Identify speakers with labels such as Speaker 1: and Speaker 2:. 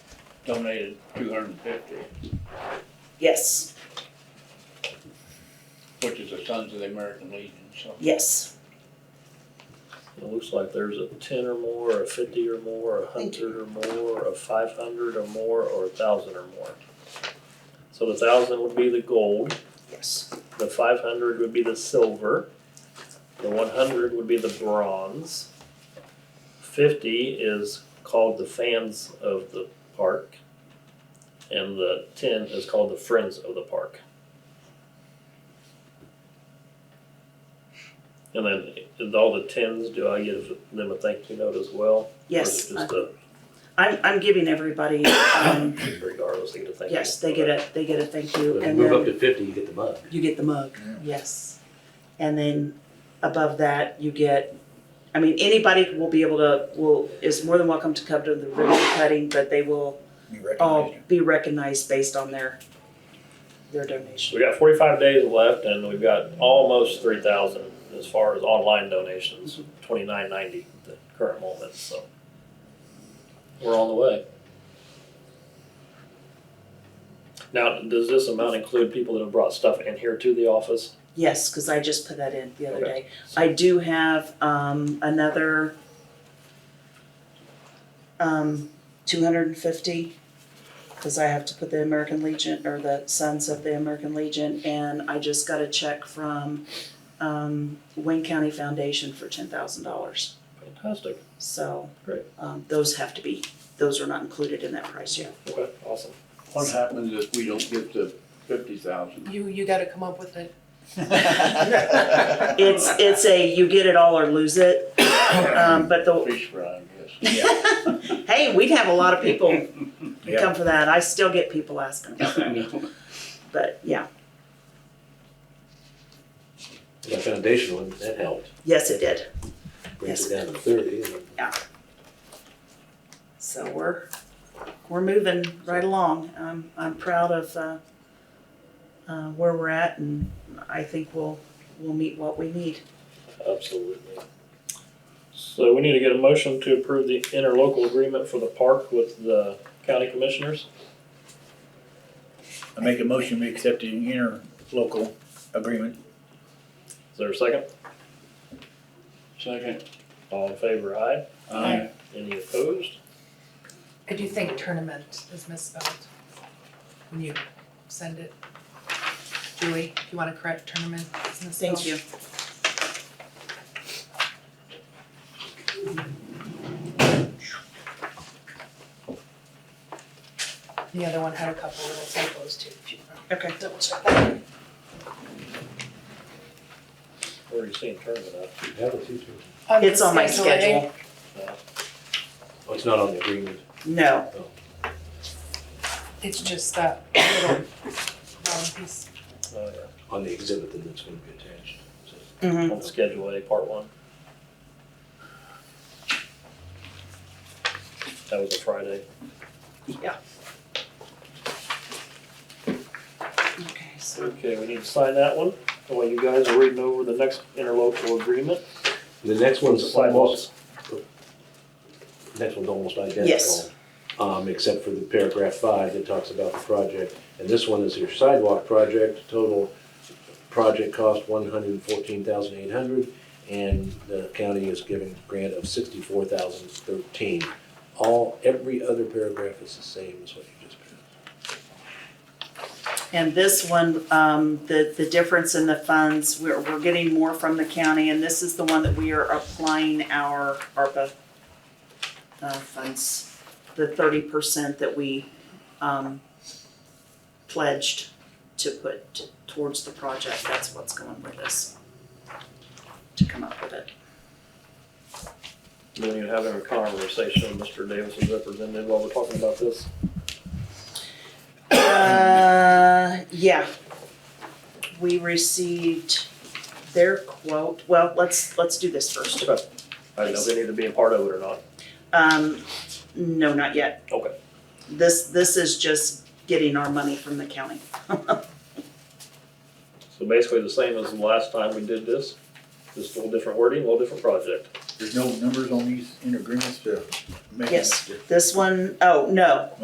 Speaker 1: donated two hundred and fifty,
Speaker 2: Yes,
Speaker 1: which is the Sons of the American Legion, so.
Speaker 2: yes.
Speaker 3: It looks like there's a ten or more, a fifty or more, a
Speaker 2: Thank
Speaker 3: hundred or more, a five hundred or more, or a thousand or more. So the thousand would be the gold,
Speaker 2: Yes.
Speaker 3: the five hundred would be the silver, the one hundred would be the bronze. Fifty is called the fans of the park, and the ten is called the friends of the park. And then with all the tens, do I give them a thank you note as well?
Speaker 2: Yes. Uh,
Speaker 3: Or is it just a,
Speaker 2: I'm I'm giving everybody um
Speaker 3: regardless, they get a thank you?
Speaker 2: yes, they get a they get a thank you
Speaker 4: When you
Speaker 2: and
Speaker 4: move up
Speaker 2: then
Speaker 4: to fifty, you get the mug.
Speaker 2: you get the mug. Yes. And then above that you get I mean anybody will be able to will is more than welcome to come to the ribbon cutting, but they will
Speaker 5: You
Speaker 2: all
Speaker 5: recognize
Speaker 2: be recognized based on their their donation.
Speaker 3: We got forty-five days left and we've got almost three thousand as far as online donations, twenty-nine ninety at the current moment, so. We're on the way. Now, does this amount include people that have brought stuff in here to the office?
Speaker 2: Yes, because I just put that in the other
Speaker 3: Okay.
Speaker 2: day. I do have um another um two hundred and fifty, because I have to put the American Legion or the Sons of the American Legion, and I just got a check from um Wayne County Foundation for ten thousand dollars.
Speaker 3: Fantastic,
Speaker 2: So
Speaker 3: Great.
Speaker 2: um those have to be, those are not included in that price yet.
Speaker 3: okay, awesome.
Speaker 1: What happens if we don't get the fifty thousand?
Speaker 6: You, you gotta come up with it.
Speaker 5: that.
Speaker 2: It's it's a you get it all or lose it, um but the
Speaker 1: Fish fry, I guess.
Speaker 5: Yeah,
Speaker 2: Hey, we'd have a lot of people
Speaker 5: Yeah.
Speaker 2: come for that. I still get people asking about that. But yeah,
Speaker 4: The foundation one, that helped,
Speaker 2: yes, it did.
Speaker 4: brings
Speaker 2: Yes.
Speaker 4: it down to thirty, and
Speaker 2: So we're we're moving right along. I'm I'm proud of uh, uh, where we're at, and I think we'll we'll meet what we need.
Speaker 3: Absolutely. So we need to get a motion to approve the interlocal agreement for the park with the county commissioners.
Speaker 5: I make a motion, we accept an interlocal agreement.
Speaker 3: Is there a second?
Speaker 1: Second,
Speaker 3: All in favor, aye?
Speaker 5: Aye.
Speaker 3: Any opposed?
Speaker 6: I do think tournament is misspelled when you send it. Julie, if you wanna correct tournament, is misspelled.
Speaker 2: Thank you.
Speaker 6: The other one had a couple little typos too, if you want
Speaker 2: Okay.
Speaker 6: to double check that.
Speaker 3: Where are you seeing tournament at?
Speaker 4: you have a teacher.
Speaker 2: It's on my schedule.
Speaker 4: Oh, it's not on the agreement,
Speaker 2: No,
Speaker 4: no.
Speaker 6: It's just that little round piece.
Speaker 3: Oh, yeah.
Speaker 4: on the exhibit then that's gonna be attached. So,
Speaker 2: hmm
Speaker 3: on Schedule A, Part One. That was a Friday.
Speaker 2: yeah. Okay, so
Speaker 3: Okay, we need to sign that one while you guys are reading over the next interlocal agreement.
Speaker 4: The next one's
Speaker 3: Sidewalks.
Speaker 4: almost, next one's almost identical.
Speaker 2: Yes.
Speaker 4: Um, except for the paragraph five that talks about the project, and this one is your sidewalk project, total project cost one hundred and fourteen thousand eight hundred, and the county is giving grant of sixty-four thousand thirteen. All, every other paragraph is the same as what you just put.
Speaker 2: And this one, um, the, the difference in the funds, we're, we're getting more from the county, and this is the one that we are applying our ARPA uh, funds, the thirty percent that we, um, pledged to put towards the project, that's what's going with this. To come up with it.
Speaker 3: When you're having a conversation with Mr. Davis's representative while we're talking about this.
Speaker 2: Uh, yeah. We received their quote, well, let's, let's do this first.
Speaker 3: I don't know if they need to be a part of it or not.
Speaker 2: Um, no, not yet.
Speaker 3: Okay.
Speaker 2: This, this is just getting our money from the county.
Speaker 3: So basically the same as the last time we did this, just a little different wording, a little different project.
Speaker 5: There's no numbers on these inter agreements to make.
Speaker 2: Yes. This one, oh, no,